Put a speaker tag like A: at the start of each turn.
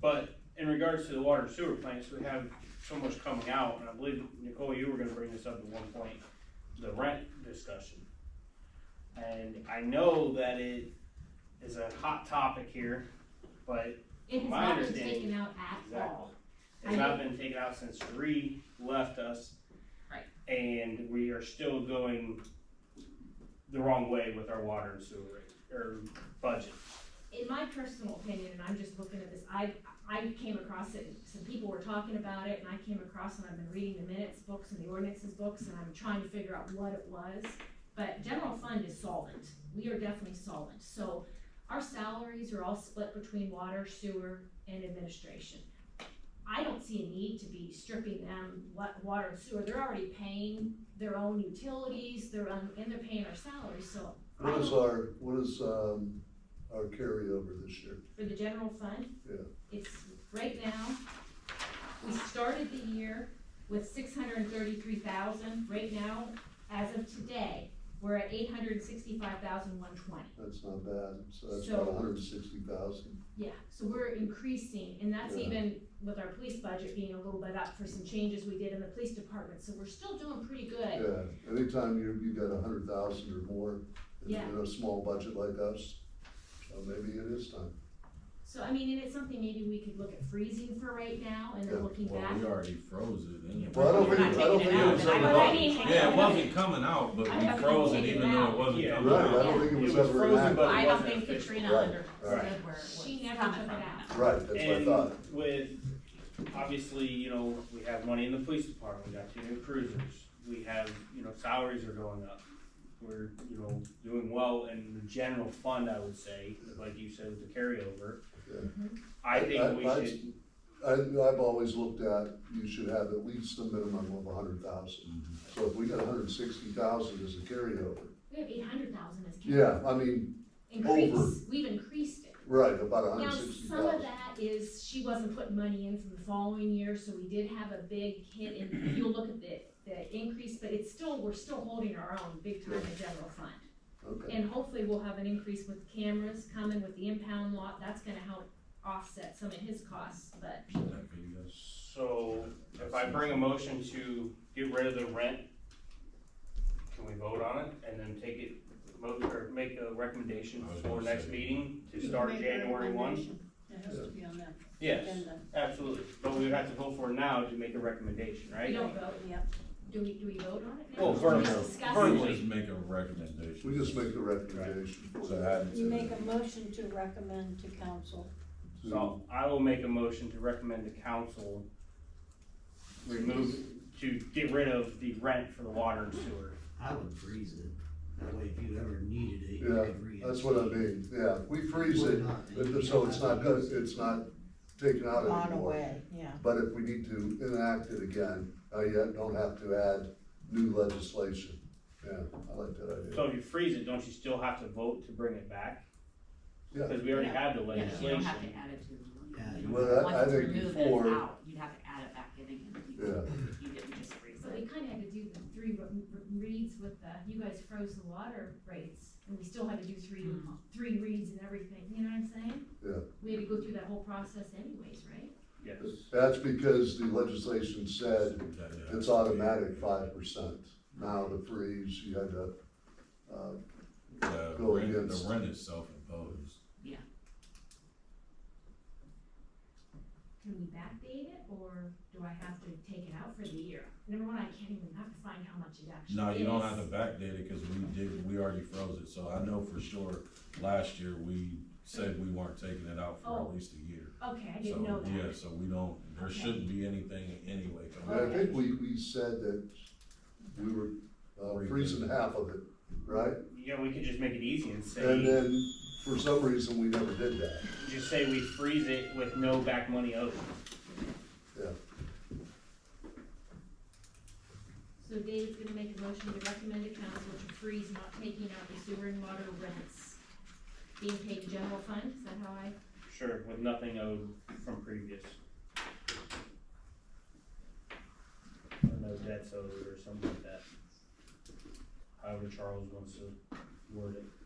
A: But in regards to the water and sewer plants, we have so much coming out, and I believe, Nicole, you were gonna bring this up at one point, the rent discussion. And I know that it is a hot topic here, but
B: It has
A: My
B: not been
A: understanding-
B: taken out at all.
A: it's not been taken out since Ree left us.
B: Right.
A: And we are still going the wrong way with our water and sewer rate, or budget.
B: In my personal opinion, and I'm just looking at this, I, I came across it, some people were talking about it, and I came across, and I've been reading the minutes books and the ordinances books, and I'm trying to figure out what it was. But general fund is solvent, we are definitely solvent, so our salaries are all split between water, sewer, and administration. I don't see a need to be stripping them what, water and sewer, they're already paying their own utilities, their own, and they're paying our salaries, so
C: What is our, what is, um, our carryover this year?
B: for the general fund.
C: Yeah.
B: It's, right now, we started the year with six hundred and thirty-three thousand, right now, as of today, we're at eight hundred and sixty-five thousand one twenty.
C: That's not bad, so that's
B: So-
C: about hundred and sixty thousand.
B: Yeah, so we're increasing, and that's
C: Yeah.
B: even with our police budget being a little bit up for some changes we did in the police department, so we're still doing pretty good.
C: Yeah, anytime you, you got a hundred thousand or more in
B: Yeah.
C: in a small budget like us, so maybe it is time.
B: So, I mean, and it's something maybe we could look at freezing for right now, and
C: Yeah,
B: then looking
D: Well,
B: back.
D: we already froze it anyway.
C: Well, I don't
B: We're
C: think,
B: not
C: I don't
B: taking
C: think
B: it
C: it
B: out,
C: was
B: but I-
C: ever,
B: but I
C: right,
B: mean-
D: Yeah, it wasn't coming out, but
B: I
D: we
B: haven't
D: froze it
B: taken it
D: even though
B: out.
D: it wasn't
A: Yeah.
D: coming
C: I don't
A: Yeah.
D: out.
C: think it
A: It
C: was
A: was
C: ever
A: frozen,
C: enacted.
A: but-
E: I don't
A: wasn't
E: think
A: official.
E: Katrina
C: Right,
E: understood where
B: She
E: it was
B: never
E: coming
B: took
E: from.
B: it out.
C: Right, that's what I
A: And
C: thought.
A: with, obviously, you know, we have money in the police department, we got two new cruisers, we have, you know, salaries are going up. We're, you know, doing well in the general fund, I would say, like you said, with the carryover.
C: Yeah.
F: Mm-hmm.
A: I
C: I-
A: think we
C: I-
A: should,
C: I, I've always looked at, you should have at least a minimum of a hundred thousand.
A: Mm-hmm.
C: So if we got a hundred and sixty thousand as a carryover,
B: We have eight hundred thousand as. capital.
C: yeah, I mean,
B: Increase, we've increased it.
C: right, about a
B: Now,
C: hundred and sixty
B: some of
C: thousand.
B: that is, she wasn't putting money in from the following year, so we did have a big hit in, you'll look at the, the increase, but it's still, we're still holding our own big time in general fund.
C: Okay,
B: And hopefully we'll have an increase with cameras coming with the impound lot, that's gonna help offset some of his costs, but
A: so if I bring a motion to get rid of the rent, can we vote on it and then take it, vote or make a recommendation
D: I was
A: for
D: gonna
A: next
D: say-
A: meeting to
F: You
A: start
F: make a
A: January one?
F: recommendation. It has to be on that
A: Yes,
F: agenda.
A: absolutely, but we would have to vote for it now to make a recommendation,
B: we
A: right?
B: don't vote,
F: Yep.
B: do we, do we vote on it now?
A: Oh,
B: Or
A: verbally.
B: just discuss
A: Verbally.
B: it?
D: We just make a recommendation.
C: we just make a recommendation for
D: So
C: that.
D: add it
F: You
D: to
F: make
D: the-
F: a motion to recommend to council.
A: So I will make a motion to recommend the council remove, to get rid of the rent for the water and sewer.
G: I would freeze it. That way, if you ever needed it, you
C: Yeah,
G: could read it.
C: That's what I mean, yeah, we freeze it, and so it's not, good- it's not taken out
E: On
C: anymore.
E: away, yeah.
C: But if we need to enact it again, uh, you don't have to add new legislation. Yeah, I like that idea.
A: So if you freeze it, don't you still have to vote to bring it back?
C: Yeah.
A: Cause we already had the
E: Yeah, you don't have to
A: legislation.
E: add it to the.
G: Yeah,
E: you don't-
C: well, I-
E: once
C: I
E: it's
C: think
E: removed, then it's
C: before-
E: out. You'd have to add it back in again. You-
C: Yeah.
E: You didn't just freeze
B: So
E: it.
B: we kinda had to do the three re- re- reads with the, you guys froze the water rates, and we still had to do three,
D: Hmm.
E: Mhm.
B: three reads and everything, you know what I'm saying?
C: Yeah.
B: We had to go through that whole process anyways, right?
A: Yes,
C: That's because the legislation said
D: Yeah.
C: it's automatic five percent. Now the freeze, you had to, uh,
D: The
C: Go
D: rent,
C: against-
D: the rent is self-imposed.
B: Can we backdate it, or do I have to take it out for the year? Number one, I can't even, I have to find how much it actually is.
D: No, you don't have to backdate it, cause we did, we already froze it, so I know for sure, last year, we said we weren't taking it out for
B: Oh.
D: at least a year.
B: Okay, I
D: So,
B: didn't know
D: yeah,
B: that.
D: so we don't, there
B: Okay.
D: shouldn't be anything anyway coming
C: I
D: out.
C: think we, we said that we were uh, freezing half of it, right?
A: yeah, we could just make it easy and
C: And
A: say,
C: then, for some reason, we never did that.
A: just say we freeze it with no back money owed.
B: So Dave's gonna make a motion to recommend to council to freeze not taking out the sewer and water rents being paid to general fund, is that how I?
A: Sure, with nothing owed from previous. Or no debts owed or something like that. However Charles wants to word it.
B: uh,